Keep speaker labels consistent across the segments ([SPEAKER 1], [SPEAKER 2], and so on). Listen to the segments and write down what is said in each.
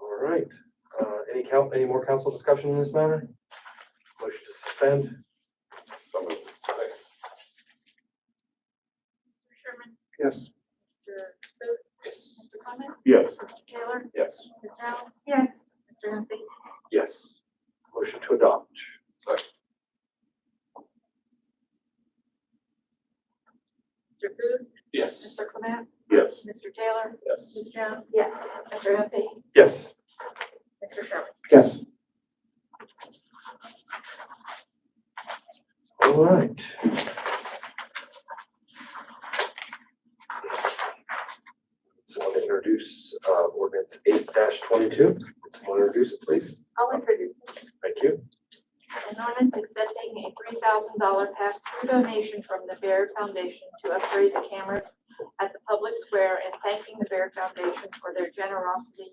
[SPEAKER 1] All right, uh, any count, any more council discussion in this matter? Motion to suspend?
[SPEAKER 2] So moved.
[SPEAKER 3] Mr. Sherman?
[SPEAKER 2] Yes.
[SPEAKER 3] Mr. Booth?
[SPEAKER 1] Yes.
[SPEAKER 3] Mr. Clement?
[SPEAKER 2] Yes.
[SPEAKER 3] Mr. Taylor?
[SPEAKER 2] Yes.
[SPEAKER 3] Ms. Reynolds? Yes. Mr. Duffy?
[SPEAKER 2] Yes.
[SPEAKER 1] Motion to adopt?
[SPEAKER 3] Mr. Booth?
[SPEAKER 1] Yes.
[SPEAKER 3] Mr. Clement?
[SPEAKER 2] Yes.
[SPEAKER 3] Mr. Taylor?
[SPEAKER 2] Yes.
[SPEAKER 3] Ms. Jones? Yes. Mr. Duffy?
[SPEAKER 1] Yes.
[SPEAKER 3] Mr. Sherman?
[SPEAKER 2] Yes.
[SPEAKER 1] All right. Someone to introduce, uh, ordinance eight twenty-two, someone introduce it, please,
[SPEAKER 3] I'll introduce.
[SPEAKER 1] thank you.
[SPEAKER 3] An ordinance accepting a three thousand dollar pass-through donation from the Bear Foundation to upgrade the cameras at the public square and thanking the Bear Foundation for their generosity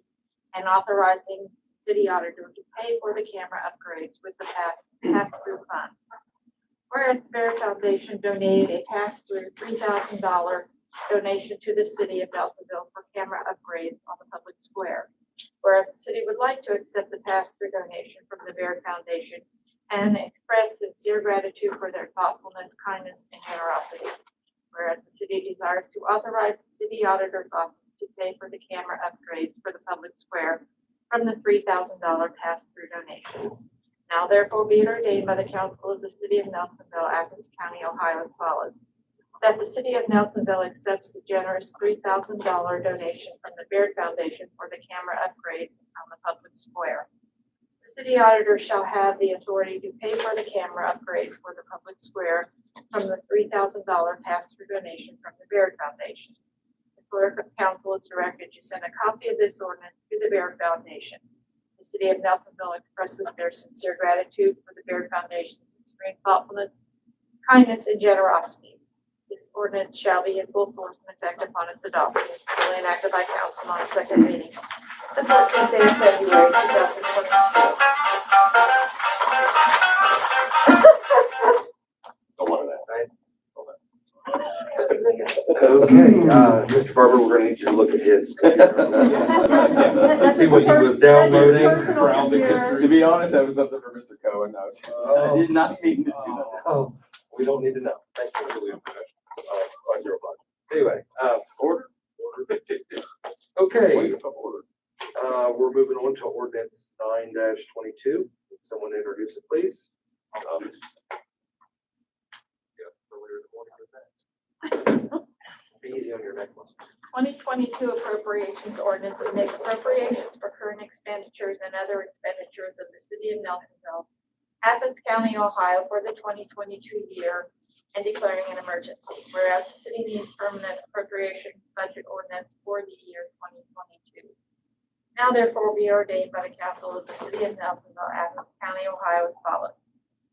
[SPEAKER 3] and authorizing city auditor to pay for the camera upgrades with the pass, pass-through fund. Whereas the Bear Foundation donated a pass-through three thousand dollar donation to the city of Nelsonville for camera upgrades on the public square. Whereas the city would like to accept the pass-through donation from the Bear Foundation and express sincere gratitude for their thoughtfulness, kindness, and generosity. Whereas the city desires to authorize the city auditor's office to pay for the camera upgrades for the public square from the three thousand dollar pass-through donation. Now therefore be it ordained by the council of the city of Nelsonville, Athens County, Ohio as follows. That the city of Nelsonville accepts the generous three thousand dollar donation from the Baird Foundation for the camera upgrades on the public square. The city auditor shall have the authority to pay for the camera upgrades for the public square from the three thousand dollar pass-through donation from the Baird Foundation. The clerk of council is directed to send a copy of this ordinance to the Baird Foundation. The city of Nelsonville expresses their sincere gratitude for the Baird Foundation's extreme thoughtfulness, kindness, and generosity. This ordinance shall be in full force and effect upon its adoption, duly enacted by council on its second reading. The fourteenth day of February, two thousand twenty-two.
[SPEAKER 2] Don't want that.
[SPEAKER 1] Okay, uh, Mr. Barber, we're gonna need you to look at his computer.
[SPEAKER 4] That's
[SPEAKER 1] See what he was downloading.
[SPEAKER 4] Browsing
[SPEAKER 2] To be honest, that was something for Mr. Cohen. I was- I did not mean to do that.
[SPEAKER 1] Oh, we don't need to know, thank you. Uh, on your block. Anyway, uh, order? Okay.
[SPEAKER 2] Wait, order.
[SPEAKER 1] Uh, we're moving on to ordinance nine twenty-two. Would someone introduce it, please? Um, yeah, earlier in the morning with that. Be easy on your neck muscle.
[SPEAKER 3] 2022 appropriations ordinance would make appropriations for current expenditures and other expenditures of the city of Nelsonville, Athens County, Ohio for the 2022 year and declaring an emergency. Whereas the city needs permanent appropriation budget ordinance for the year 2022. Now therefore be ordained by the council of the city of Nelsonville, Athens County, Ohio as follows.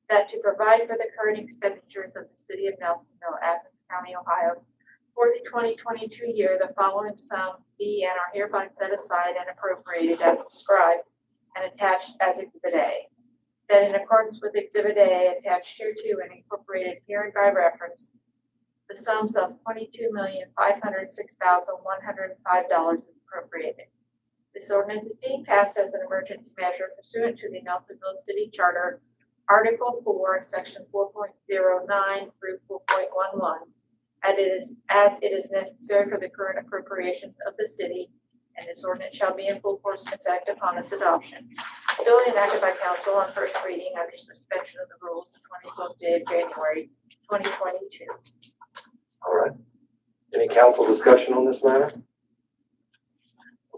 [SPEAKER 3] That to provide for the current expenditures of the city of Nelsonville, Athens County, Ohio for the twenty twenty-two year, the following sums be and are hereby set aside and appropriated as described and attached as Exhibit A. That in accordance with Exhibit A attached hereto and incorporated herein by reference, the sums of twenty-two million, five hundred six thousand, one hundred five dollars is appropriated. This ordinance is being passed as an emergency measure pursuant to the Nelsonville City Charter, Article four, Section four point zero nine through four point one one, as it is, as it is necessary for the current appropriations of the city, and this ordinance shall be in full force and effect upon its adoption. Duly enacted by council on first reading under suspension of the rules the twenty-fourth day of January, twenty twenty-two.
[SPEAKER 1] All right. Any council discussion on this matter?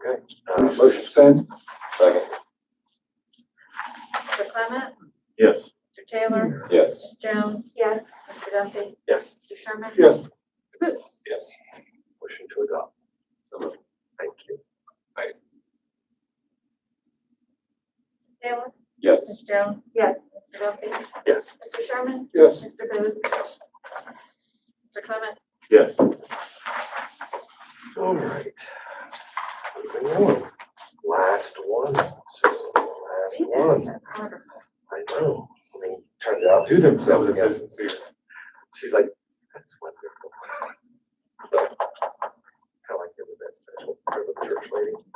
[SPEAKER 1] Okay, uh, motion.
[SPEAKER 2] Suspend. Second.
[SPEAKER 3] Mr. Clement?
[SPEAKER 2] Yes.
[SPEAKER 3] Mr. Taylor?
[SPEAKER 2] Yes.
[SPEAKER 3] Ms. Jones? Yes. Mr. Duffy?
[SPEAKER 1] Yes.
[SPEAKER 3] Mr. Sherman?
[SPEAKER 2] Yes.
[SPEAKER 3] Mr. Booth?
[SPEAKER 2] Yes.
[SPEAKER 1] Motion to adopt.
[SPEAKER 2] So moved.
[SPEAKER 1] Thank you.
[SPEAKER 3] Taylor?
[SPEAKER 2] Yes.
[SPEAKER 3] Ms. Jones? Yes. Mr. Duffy?
[SPEAKER 1] Yes.
[SPEAKER 3] Mr. Sherman?
[SPEAKER 2] Yes.
[SPEAKER 3] Mr. Booth? Mr. Clement?
[SPEAKER 2] Yes.
[SPEAKER 1] All right. Moving on. Last one. Susan, Last one.
[SPEAKER 3] That's wonderful.
[SPEAKER 1] I know. I mean, turned out to themselves as so sincere. She's like, that's wonderful. So, kind of like the best special for the church lady.